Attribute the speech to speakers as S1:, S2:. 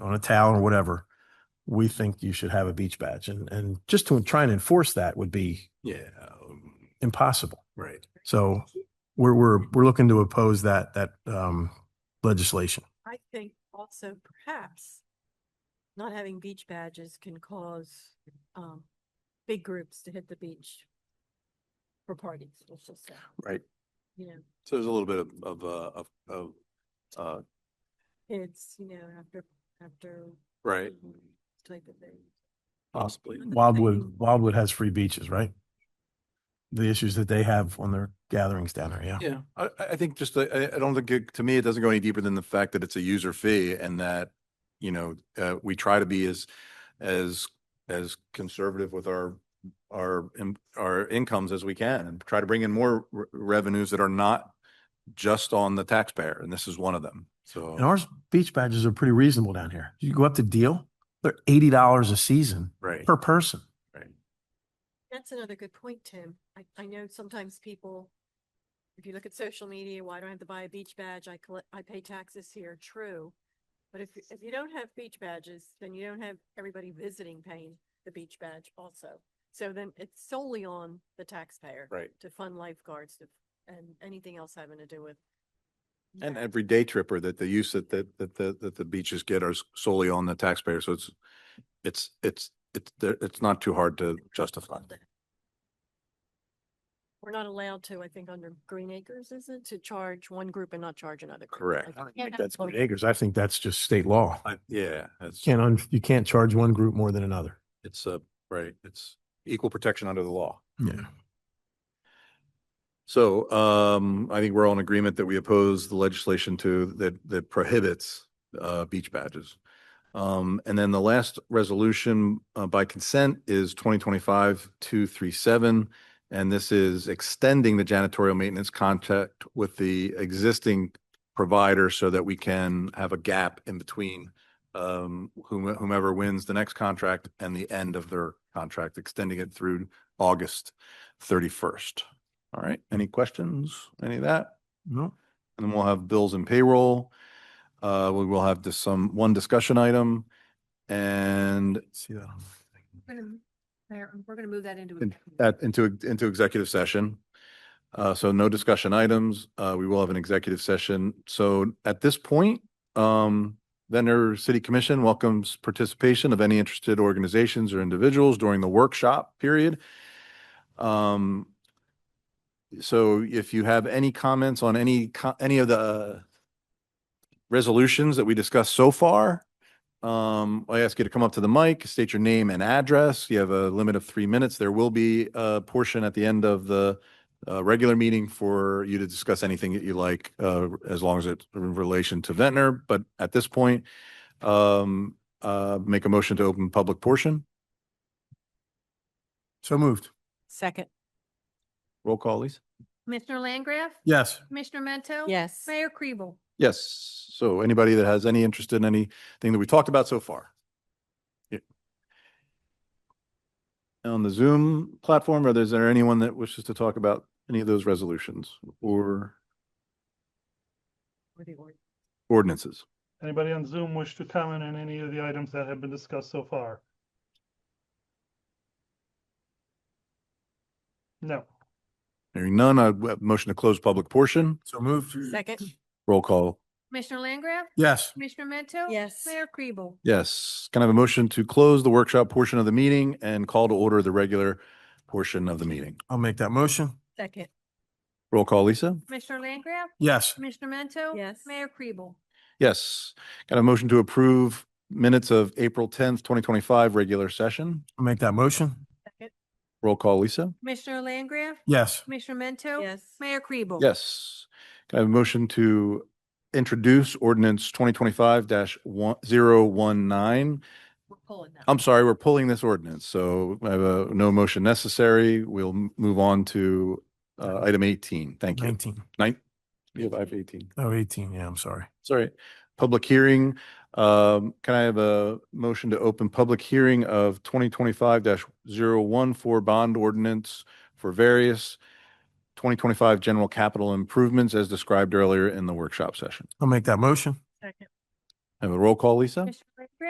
S1: on a towel or whatever, we think you should have a beach badge. And, and just to try and enforce that would be
S2: Yeah, um,
S1: impossible.
S2: right.
S1: So we're, we're, we're looking to oppose that, that, um, legislation.
S3: I think also perhaps not having beach badges can cause um big groups to hit the beach for parties, let's just say,
S1: Right.
S3: you know,
S2: So there's a little bit of, of, uh, of, of, uh,
S3: kids, you know, after after
S2: right,
S3: type of thing.
S2: possibly.
S1: Wildwood, Wildwood has free beaches, right? The issues that they have on their gatherings down there, yeah.
S2: Yeah, I, I I think just, uh, I, I don't think, it- to me, it doesn't go any deeper than the fact that it's a user fee and that, you know, uh, we try to be as, as, as conservative with our, our, in- our incomes as we can and try to bring in more re- revenues that are not just on the taxpayer. And this is one of them.
S1: And
S2: So,
S1: our beach badges are pretty reasonable down here. You go up to Deal, they're eighty dollars a season
S2: right,
S1: per person.
S2: right.
S3: That's another good point, Tim. I, I know sometimes people, if you look at social media, why do I have to buy a beach badge? I collect, I pay taxes here. True. But if, if you don't have beach badges, then you don't have everybody visiting paying the beach badge also. So then it's solely on the taxpayer.
S2: Right.
S3: To fund lifeguards to- and anything else having to do with.
S2: And
S3: that.
S2: every day tripper that the use that, that, that, that, that the beaches get are solely on the taxpayer. So it's, it's, it's, it's, it's not too hard to justify.
S3: We're not allowed to, I think, under Green Acres, is it, to charge one group and not charge another? group?
S2: Correct.
S3: I
S2: I don't
S3: think
S1: That's
S3: what-
S1: Green Acres. I think that's just state law.
S2: I, yeah, that's,
S1: Can't, un- you can't charge one group more than another.
S2: it's a, right, it's equal protection under the law.
S1: Yeah.
S2: So, um, I think we're all in agreement that we oppose the legislation to, that, that prohibits, uh, beach badges. Um, and then the last resolution, uh, by consent is twenty twenty-five two three seven. And this is extending the janitorial maintenance contract with the existing provider so that we can have a gap in between um, whom- whomever wins the next contract and the end of their contract, extending it through August thirty-first. All right, any questions, any of that?
S1: No,
S2: And then we'll have bills and payroll. Uh, we will have just some, one discussion item. And
S1: see that. on-
S4: We're gonna m- Mayor, we're gonna move that into.
S2: And
S4: executive.
S2: that into, into executive session. Uh, so no discussion items. Uh, we will have an executive session. So at this point, um, Ventnor City Commission welcomes participation of any interested organizations or individuals during the workshop period. Um, so if you have any comments on any, co- any of the uh, resolutions that we discussed so far, um, I ask you to come up to the mic, state your name and address. You have a limit of three minutes. There will be a portion at the end of the uh, regular meeting for you to discuss anything that you like, uh, as long as it's in relation to Ventnor. But at this point, um, uh, make a motion to open public portion.
S1: So moved.
S3: Second,
S2: Roll call, please.
S4: Commissioner Landgraf,
S1: Yes.
S4: Commissioner Mento.
S3: yes.
S4: Mayor Kribel.
S2: Yes. So anybody that has any interest in anything that we talked about so far. Yeah. On the Zoom platform, or is there anyone that wishes to talk about any of those resolutions or
S3: Or the or-
S2: ordinances?
S5: Anybody on Zoom wish to comment on any of the items that have been discussed so far? No.
S2: Hearing none, I w- motion to close public portion,
S1: So moved.
S3: Second,
S2: roll call.
S4: Commissioner Landgraf,
S1: Yes.
S4: Commissioner Mento.
S3: yes.
S4: Mayor Kribel.
S2: Yes. Can I have a motion to close the workshop portion of the meeting and call to order the regular portion of the meeting?
S1: I'll make that motion.
S3: Second,
S2: Roll call, Lisa?
S4: Commissioner Landgraf,
S1: Yes.
S4: Commissioner Mento.
S3: Yes.
S4: Mayor Kribel.
S2: Yes. Got a motion to approve minutes of April tenth, twenty twenty-five, regular session.
S1: I'll make that motion.
S2: Roll call, Lisa?
S4: Commissioner Landgraf,
S1: Yes.
S4: Commissioner Mento.
S3: yes.
S4: Mayor Kribel.
S2: Yes. Can I have a motion to introduce ordinance twenty twenty-five dash one, zero one nine?
S3: We're pulling that.
S2: I'm sorry, we're pulling this ordinance, so I have a, no motion necessary. We'll m- move on to uh, item eighteen. Thank you.
S1: Nineteen.
S2: Nine, you have I have eighteen.
S1: Oh, 18. Yeah, I'm sorry.
S2: Sorry. Public hearing. Um, can I have a motion to open public hearing of twenty twenty-five 14 bond ordinance for various twenty twenty-five general capital improvements as described earlier in the workshop session?
S1: I'll make that motion.
S3: Second,
S2: Have a roll call, Lisa?
S4: Commissioner